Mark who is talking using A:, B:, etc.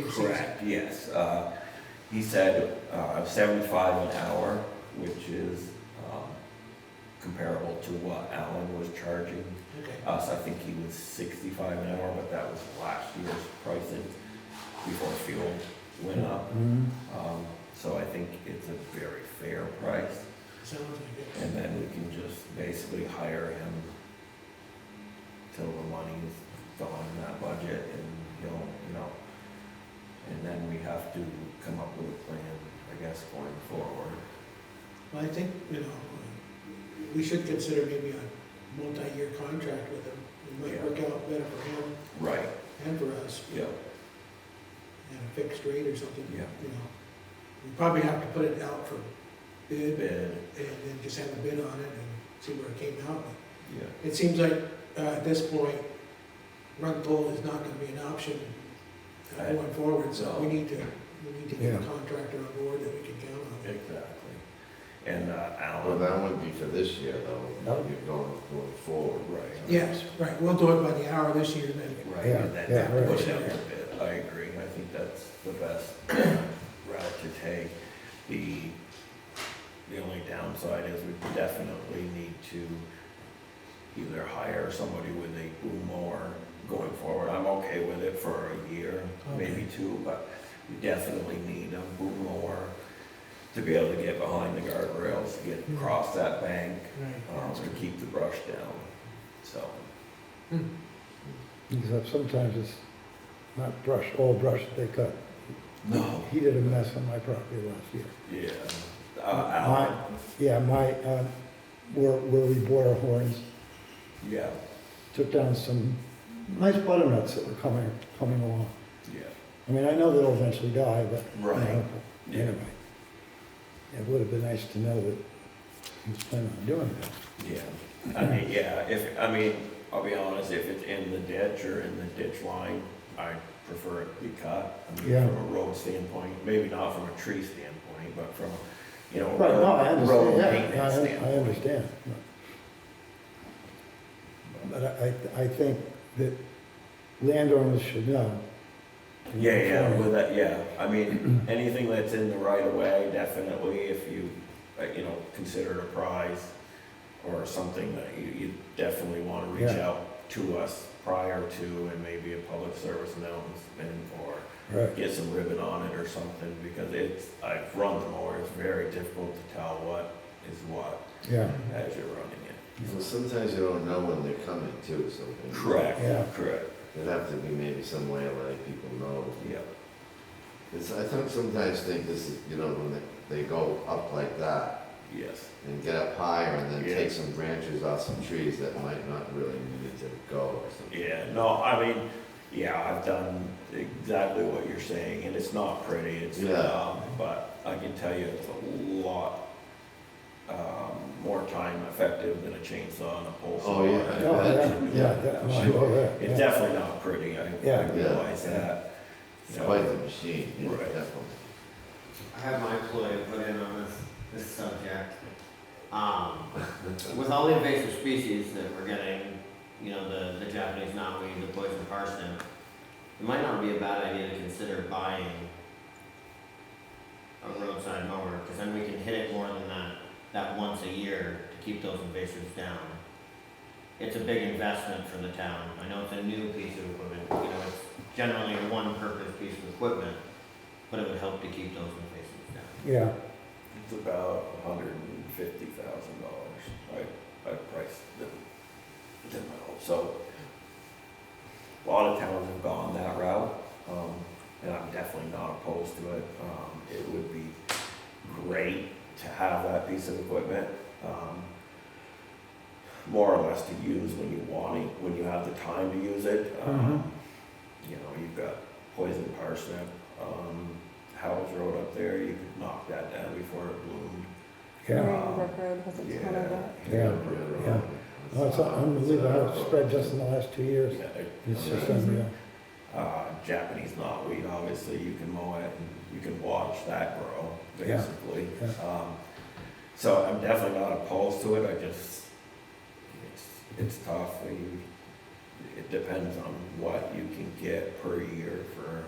A: Correct, yes. Uh, He said uh, 75 an hour, which is um, comparable to what Alan was charging
B: Okay.
A: us. I think he was 65 an hour, but that was last year's pricing before fuel went up.
C: Mm-hmm.
A: Um, So I think it's a very fair price.
B: Sounds like it.
A: And then we can just basically hire him till the money is gone in that budget and he'll, you know. And then we have to come up with a plan, I guess, going forward.
B: Well, I think, you know, uh, we should consider maybe a multi-year contract with him. It might
A: Yeah.
B: work out better for him
A: Right.
B: and for us,
A: Yeah,
B: at a fixed rate or something, you
A: Yeah.
B: know. We probably have to put it out for bid and
A: bid,
B: then just have a bid on it and see where it came out.
A: yeah,
B: It seems like, uh, at this point, rug pull is not gonna be an option uh,
A: I-
B: going forward, so we
A: no.
B: need to, we need to get a
C: Yeah.
B: contractor on board that we can count on.
A: exactly. And uh,
D: Well,
A: Alan,
D: that wouldn't be for this year, though.
C: No.
D: You're going, going forward.
A: Right.
B: Yes, right, we'll do it by the hour this year, then.
A: right,
C: Yeah,
A: and then
C: yeah,
A: that
C: right.
A: push out a bid, I agree, I think that's the best route to take. The, the only downside is we definitely need to either hire somebody with a boom mower going forward. I'm okay with it for a year, maybe two, but we definitely need a boom mower to be able to get behind the guardrails, to
C: Hmm.
A: get across that bank, um, to keep the brush down, so.
C: Except sometimes it's not brush, all brush that they cut.
A: No.
C: He did a mess on my property last year.
A: Yeah. Uh, Alan,
C: Yeah, my, uh, where, where we bought our horns,
A: yeah,
C: took down some nice butternuts that were coming, coming along.
A: yeah,
C: I mean, I know they'll eventually die, but. you
A: Right.
C: know,
A: Yeah.
C: Anyway. It would have been nice to know that he was planning on doing that.
A: yeah. I mean, yeah, if, I mean, I'll be honest, if it's in the ditch or in the ditch line, I prefer it be cut. I mean,
C: Yeah.
A: from a road standpoint, maybe not from a tree standpoint, but from, you know,
C: Right, no, I
A: road road
C: understand, yeah,
A: maintenance
C: I- I,
A: standpoint.
C: understand. But I, I I think that landowners should know.
A: Yeah, yeah, with that, yeah, I mean, anything that's in the right of way, definitely, if you, uh, you know, consider it a prize or something that you, you definitely wanna reach
C: Yeah.
A: out to us prior to and maybe a public service announcement or
C: Right,
A: get some ribbon on it or something, because it's, I've run the mower, it's very difficult to tell what is what
C: yeah,
A: as you're running it.
D: So sometimes you don't know when they're coming too, so.
C: Yeah.
A: Correct, correct,
D: There'd have to be maybe some way of letting people know.
A: yeah,
D: It's, I think sometimes think this is, you know, when they, they go up like that
A: yes,
D: and get up higher and then
A: Yeah.
D: take some branches off some trees that might not really need to go or something.
A: Yeah, no, I mean, yeah, I've done exactly what you're saying, and it's not pretty, it's,
D: Yeah.
A: um, but I can tell you it's a lot, um, more time effective than a chainsaw and a pole saw.
D: Oh, yeah.
C: Oh, yeah, yeah, that- well, sure, yeah,
A: It's
C: yeah.
A: definitely not pretty, I,
C: Yeah.
A: I realize that.
D: It's
A: you know.
D: quite the machine, yeah,
A: Right.
D: definitely.
E: I had my employee put in on this, this subject. Um, with all the invasive species that we're getting, you know, the, the Japanese knotweed, the poison parsnip, it might not be a bad idea to consider buying a roadside mower, because then we can hit it more than that, that once a year to keep those invasives down. It's a big investment for the town. I know it's a new piece of equipment, you know, it's generally a one-purpose piece of equipment, but it would help to keep those invasives down.
C: yeah,
A: It's about a hundred and fifty thousand dollars, I, I priced them, them out, so. A lot of towns have gone that route, um, and I'm definitely not opposed to it, um, it would be great to have that piece of equipment, um. More or less to use when you want it, when you have the time to use it, um, you know, you've got poison parsnip, um, Howells Road up there, you could knock that down before it bloomed.
C: yeah.
A: Um,
F: Marine Brook Road has a ton of that.
C: Yeah, yeah. No, It's unbelievable how it spread just in the last two years.
A: Yeah, it-
C: It's just unreal.
A: Uh, Japanese knotweed, obviously, you can mow it and you can watch that grow,
C: Yeah,
A: basically.
C: yeah.
A: Um, So I'm definitely not opposed to it, I just, it's, it's tough, you, it depends on what you can get per year for